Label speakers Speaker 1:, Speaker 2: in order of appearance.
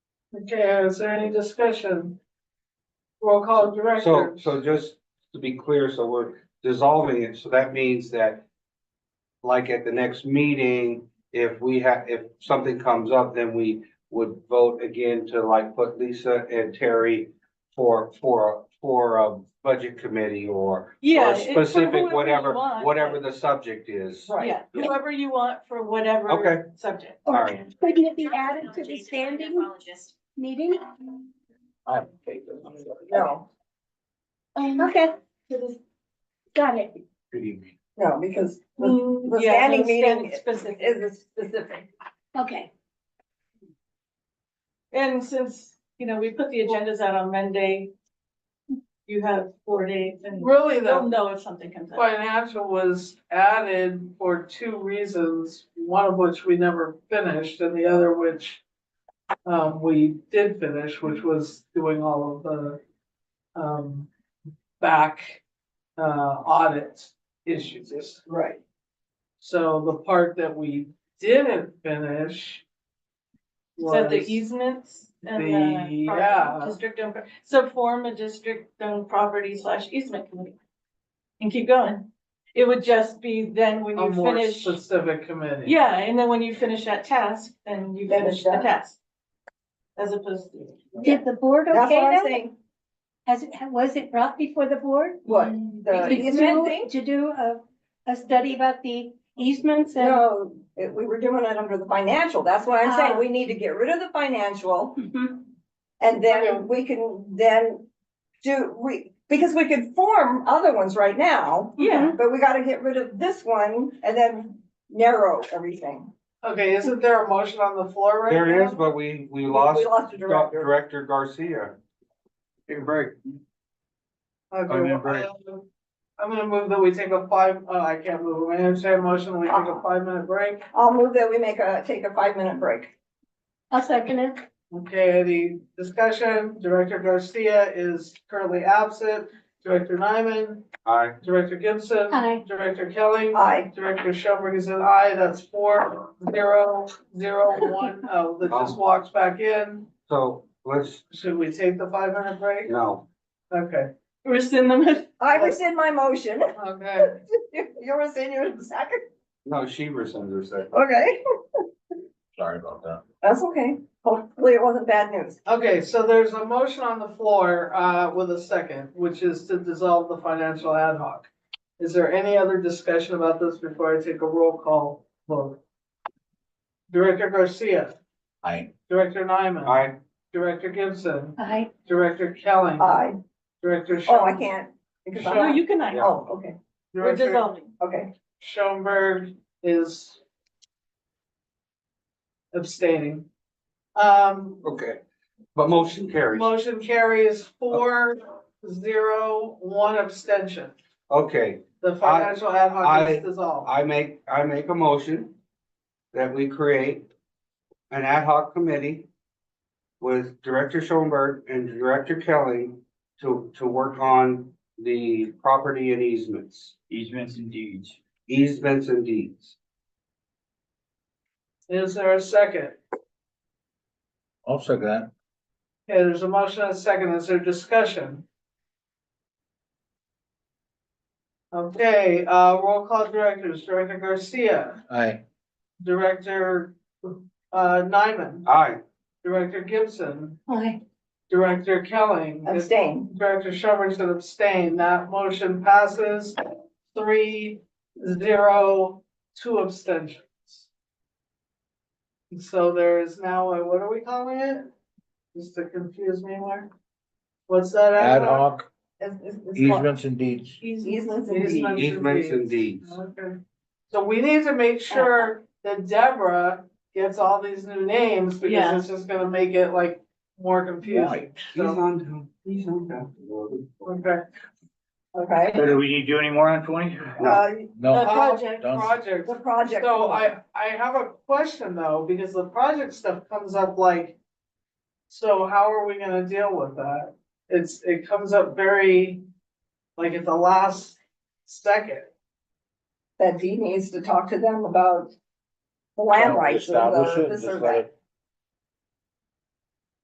Speaker 1: Okay, is there any discussion? Roll call
Speaker 2: So,
Speaker 1: director.
Speaker 2: so just to be clear, so we're dissolving it, so that means that. Like at the next meeting, if we have, if something comes up, then we would vote again to like put Lisa and Terry. For, for, for a budget committee or.
Speaker 3: Yeah.
Speaker 2: or
Speaker 3: it's for whoever
Speaker 2: Specific,
Speaker 3: you
Speaker 2: whatever,
Speaker 3: want,
Speaker 2: whatever
Speaker 3: but-
Speaker 2: the subject is.
Speaker 3: Yeah,
Speaker 1: Right,
Speaker 3: whoever you want for whatever
Speaker 2: Okay.
Speaker 3: subject.
Speaker 2: All right,
Speaker 4: Couldn't it be added to the standing meeting?
Speaker 5: No, Um,
Speaker 4: Okay. Got it.
Speaker 2: good evening.
Speaker 5: no, because the
Speaker 3: Mm,
Speaker 5: the
Speaker 3: yeah,
Speaker 5: standing
Speaker 3: no,
Speaker 5: meeting
Speaker 3: stand Specific.
Speaker 5: is a specific.
Speaker 4: Okay.
Speaker 3: And since, you know, we put the agendas out on Monday, you have four days and
Speaker 1: really
Speaker 3: they'll
Speaker 1: the
Speaker 3: know if something comes up.
Speaker 1: financial was added for two reasons, one of which we never finished and the other which. Um, we did finish, which was doing all of the, um, back, uh, audit issues.
Speaker 5: Right.
Speaker 1: So the part that we didn't finish.
Speaker 3: Is that the
Speaker 1: was-
Speaker 3: easements and
Speaker 1: the-
Speaker 3: the
Speaker 1: yeah.
Speaker 3: property, district owned, pro- so form a district owned property slash easement committee. And keep going. It would just be then when
Speaker 1: A
Speaker 3: you
Speaker 1: more
Speaker 3: finish,
Speaker 1: specific committee.
Speaker 3: yeah, and then when you finish that task, then you
Speaker 5: Then
Speaker 3: finish
Speaker 5: it's
Speaker 3: the
Speaker 5: done.
Speaker 3: task. As opposed to.
Speaker 4: Did the board okay
Speaker 5: That's what I'm
Speaker 4: that?
Speaker 5: saying,
Speaker 4: Has, it- was it brought before the board?
Speaker 5: what,
Speaker 4: To
Speaker 5: the easement
Speaker 4: do,
Speaker 5: thing?
Speaker 4: to do a, a study about the easements and?
Speaker 5: No, it- we were doing it under the financial, that's why I'm
Speaker 3: Ah.
Speaker 5: saying, we need to get rid of the financial,
Speaker 4: Mhm.
Speaker 5: and
Speaker 1: Okay.
Speaker 5: then we can then do, we, because we could form other ones right now,
Speaker 3: Yeah,
Speaker 5: but we gotta get rid of this one and then narrow everything.
Speaker 1: Okay, isn't there a motion on the floor right now?
Speaker 2: There is, but we, we lost
Speaker 5: We lost a
Speaker 2: Doc-
Speaker 5: director.
Speaker 2: Director Garcia. Take a break.
Speaker 1: Okay,
Speaker 2: I'm in
Speaker 1: well,
Speaker 2: break.
Speaker 1: I'll- I'm gonna move that we take a five, oh, I can't move, I entertain a motion, we take a five minute break.
Speaker 5: I'll move that we make a, take a five-minute break.
Speaker 4: I'll second it.
Speaker 1: Okay, any discussion? Director Garcia is currently absent. Director Nyman,
Speaker 2: Aye.
Speaker 1: Director Gibson.
Speaker 4: Aye.
Speaker 1: Director Kelly.
Speaker 5: Aye.
Speaker 1: Director Schoenberg is an aye, that's four, zero, zero, one, uh, that
Speaker 2: Um.
Speaker 1: just walks back in.
Speaker 2: So let's,
Speaker 1: Should we take the five minute
Speaker 2: you
Speaker 1: break?
Speaker 2: know,
Speaker 1: Okay,
Speaker 3: rescind them.
Speaker 5: I rescind my motion.
Speaker 1: okay.
Speaker 5: You're rescinding your second?
Speaker 2: no, she rescinds her second.
Speaker 5: Okay,
Speaker 2: Sorry about that.
Speaker 5: that's okay. Hopefully it wasn't bad news.
Speaker 1: Okay, so there's a motion on the floor, uh, with a second, which is to dissolve the financial ad hoc. Is there any other discussion about this before I take a roll call vote? Director Garcia.
Speaker 2: Aye.
Speaker 1: Director Nyman.
Speaker 2: Aye,
Speaker 1: Director Gibson.
Speaker 4: Aye.
Speaker 1: Director Kelly.
Speaker 5: Aye.
Speaker 1: Director.
Speaker 5: Uh, Oh, I
Speaker 1: Schoen-
Speaker 5: can't. because
Speaker 3: No,
Speaker 5: I'm-
Speaker 3: you can, I,
Speaker 2: Yeah.
Speaker 5: Oh, okay,
Speaker 3: we're
Speaker 1: Director
Speaker 3: dissolving.
Speaker 5: okay.
Speaker 1: Schoenberg is abstaining. Um,
Speaker 2: okay. But motion carries.
Speaker 1: motion carries four, zero, one abstention.
Speaker 2: Okay,
Speaker 1: The financial ad hoc
Speaker 2: I-
Speaker 1: is dissolved.
Speaker 2: I make, I make a motion that we create an ad hoc committee with Director Schoenberg and Director Kelly to, to work on the property and easements,
Speaker 6: Easements and deeds.
Speaker 2: easements and deeds.
Speaker 1: Is there a second?
Speaker 6: I'll second that.
Speaker 1: Okay, there's a motion and a second. Is there discussion? Okay, uh, roll call directors, Director Garcia,
Speaker 6: Aye.
Speaker 1: Director, uh, Nyman,
Speaker 2: Aye,
Speaker 1: Director Gibson,
Speaker 4: Aye.
Speaker 1: Director Kelling. Is-
Speaker 5: Abstain.
Speaker 1: Director Schoenberg should abstain. That motion passes three, zero, two abstentions. So there is now, a what are we calling it? Just to confuse me more. What's that?
Speaker 6: Ad hoc
Speaker 5: It's- it's- it's called
Speaker 6: easements and deeds.
Speaker 5: Easements and deeds.
Speaker 1: Easements
Speaker 2: easements and
Speaker 1: and deeds.
Speaker 2: deeds.
Speaker 1: Okay. So we need to make sure that Deborah gets all these new names
Speaker 3: Yeah.
Speaker 1: because it's just gonna make it like more confusing.
Speaker 6: Right.
Speaker 2: He's
Speaker 1: So,
Speaker 2: on, down- he's on. down.
Speaker 1: okay.
Speaker 5: Okay.
Speaker 6: So do we need to do any more on twenty?
Speaker 5: Uh,
Speaker 3: The
Speaker 6: No,
Speaker 1: Uh,
Speaker 3: project,
Speaker 6: done.
Speaker 1: Project.
Speaker 5: the project.
Speaker 1: So I, I have a question though, because the project stuff comes up like, so how are we gonna deal with that? It's, it comes up very, like at the last second.
Speaker 5: That Dee needs to talk to them about the land uh, rights. or the-
Speaker 6: Establish it,
Speaker 5: this
Speaker 6: just
Speaker 5: or
Speaker 6: let
Speaker 5: that.
Speaker 6: it